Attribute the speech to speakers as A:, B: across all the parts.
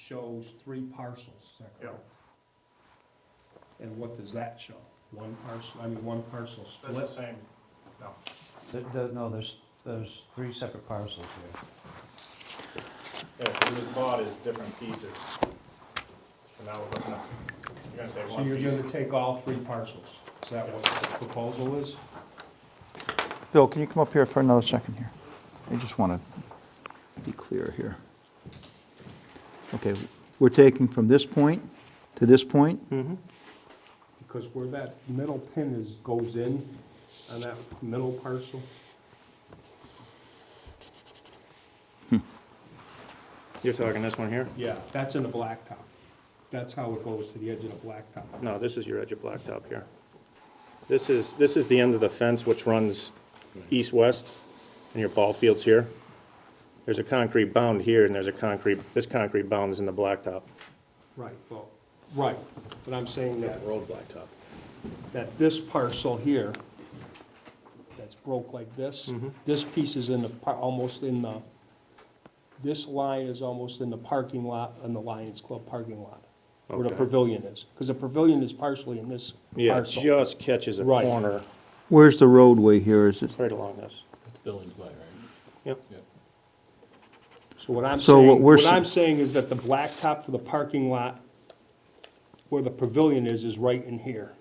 A: shows three parcels, is that correct? And what does that show? One parcel, I mean, one parcel
B: That's the
A: split?
B: same, no.
C: There- there- No, there's, there's three separate parcels here.
B: Yeah, it was bought as different pieces. And now we're looking at, you're gonna say
A: So
B: one
A: you're gonna
B: piece.
A: take all three parcels? Is that what the proposal is?
D: Bill, can you come up here for another second here? I just want to be clear here. Okay, we're taking from this point to this point?
A: Because where that middle pin is, goes in on that middle parcel?
E: You're talking this one here?
A: Yeah, that's in the blacktop. That's how it goes to the edge of the blacktop.
E: No, this is your edge of blacktop here. This is, this is the end of the fence which runs east-west, and your ball field's here. There's a concrete bound here, and there's a concrete, this concrete bound is in the blacktop.
A: Right, well, right, but I'm saying that,
F: Road blacktop.
A: that this parcel here, that's broke like this,
E: Mm-hmm.
A: this piece is in the, par- almost in the, this line is almost in the parking lot, in the Lions Club parking lot, where the
E: Okay.
A: pavilion is, because the pavilion is partially in this
E: Yeah, it
A: parcel.
E: just catches a
A: Right.
E: corner
D: Where's the roadway here? Is it,
E: right along this.
F: That's Billings Way, right?
E: Yep.
A: So what I'm
D: So what
A: saying,
D: we're
A: what
D: s-
A: I'm saying is that the blacktop for the parking lot, where the pavilion is, is right in here,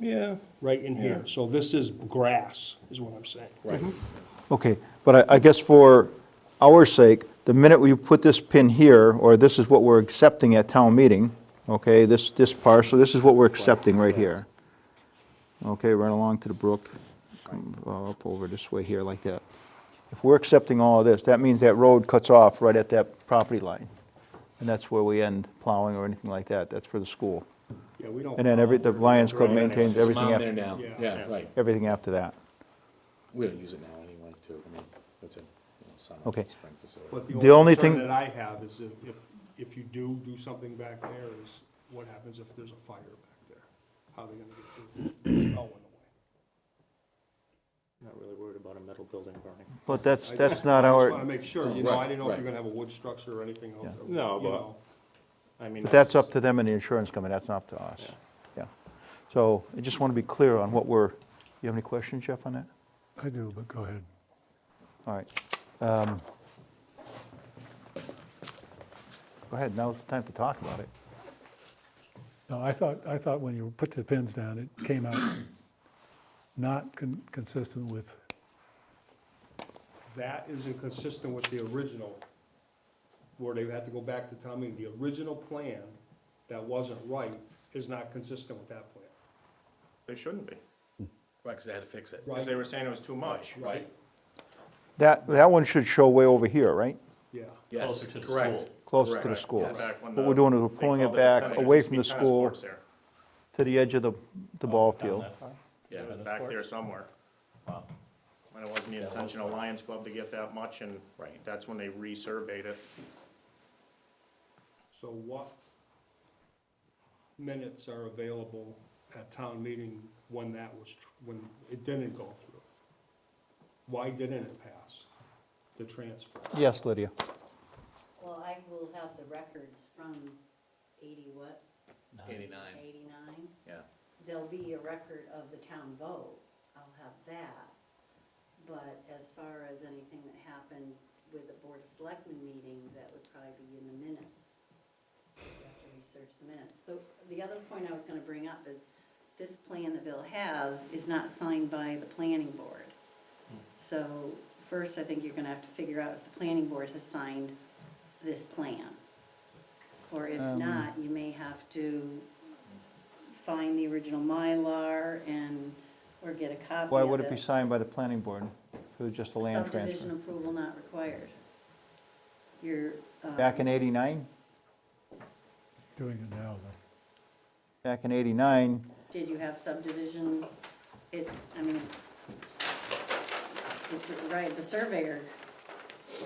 E: Yeah.
A: right in here. So this is grass, is what I'm saying.
F: Right.
D: okay, but I, I guess for our sake, the minute we put this pin here, or this is what we're accepting at town meeting, okay, this, this parcel, this is what we're accepting right here. Okay, run along to the brook, come uh, up over this way here like that. If we're accepting all of this, that means that road cuts off right at that property line. And that's where we end plowing or anything like that, that's for the school.
A: Yeah, we don't.
D: And then every, the Lions Club
E: Right.
D: maintains
F: There's a
D: everything,
F: mound there
D: af-
F: now,
A: Yeah.
F: yeah, right.
D: everything after that.
F: We don't use it now anyway, too, I mean, that's a, you know, summer,
D: Okay.
F: spring facility.
A: But the
D: The
A: only
D: only
A: concern
D: thing-
A: that I have is if, if- if you do do something back there, is what happens if there's a fire back there? How are they gonna get through? There's no one away.
E: Not really worried about a metal building burning.
D: But that's,
A: I
D: that's
A: just-
D: not
A: I just wanna
D: our,
A: make sure, you know, I
F: Right,
A: didn't know if you're
F: right.
A: gonna have a wood structure or anything else.
D: Yeah.
A: or,
E: No,
A: you
E: but-
A: know.
E: I mean.
D: but that's up to them and the insurance company, that's not up to us. Yeah. So I just want to be clear on what we're, you have any questions, Jeff, on that?
G: I do, but go ahead.
D: All right. Um, Go ahead, now's the time to talk about it.
G: No, I thought, I thought when you put the pins down, it came out not con- consistent with,
A: That isn't consistent with the original, where they had to go back to town meeting. The original plan that wasn't right is not consistent with that plan.
E: They shouldn't be,
F: Right, 'cause they had to fix it.
E: because they were saying it was too much.
F: Right?
D: That, that one should show way over here, right?
A: Yeah.
F: Yes,
H: Closer to the
F: correct.
H: school.
D: Closer
F: Correct.
D: to the school.
F: Yes.
E: Back when
D: What
E: the-
D: we're doing is we're
E: they
D: pulling it
E: called
D: back
E: the tennis-
D: away from the
E: used to be tennis
D: school
E: courts there.
D: to the edge of the,
F: Oh,
D: the ball field.
F: Yeah.
E: It was back there somewhere.
H: Wow.
E: And it wasn't the intention of Lions Club to get that much, and
F: Right.
E: that's when they resurveyed it.
A: So what minutes are available at town meeting when that was, tr- when it didn't go through? Why didn't it pass, the transfer?
D: Yes, Lydia.
I: Well, I will have the records from eighty what,
F: Eighty-nine,
I: eighty-nine?
F: yeah.
I: There'll be a record of the town vote, I'll have that. But as far as anything that happened with the board of selectmen meeting, that would probably be in the minutes. You have to research the minutes. But the other point I was gonna bring up is, this plan that Bill has is not signed by the planning board. So first, I think you're gonna have to figure out if the planning board has signed this plan. Or if
D: Um.
I: not, you may have to find the original Mylar and, or get a copy of it.
D: Why would it be signed by the planning board? If it was just a land
I: Subdivision
D: transfer?
I: approval not required. You're. um,
D: Back in 89?
G: doing it now, though.
D: Back in 89,
I: Did you have subdivision? It, I mean, it's, right, the surveyor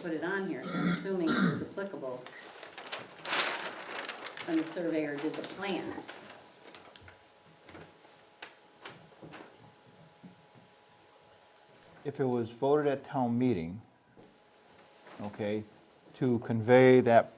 I: put it on here, so I'm assuming it was applicable. And the surveyor did the plan.
D: if it was voted at town meeting, okay, to convey that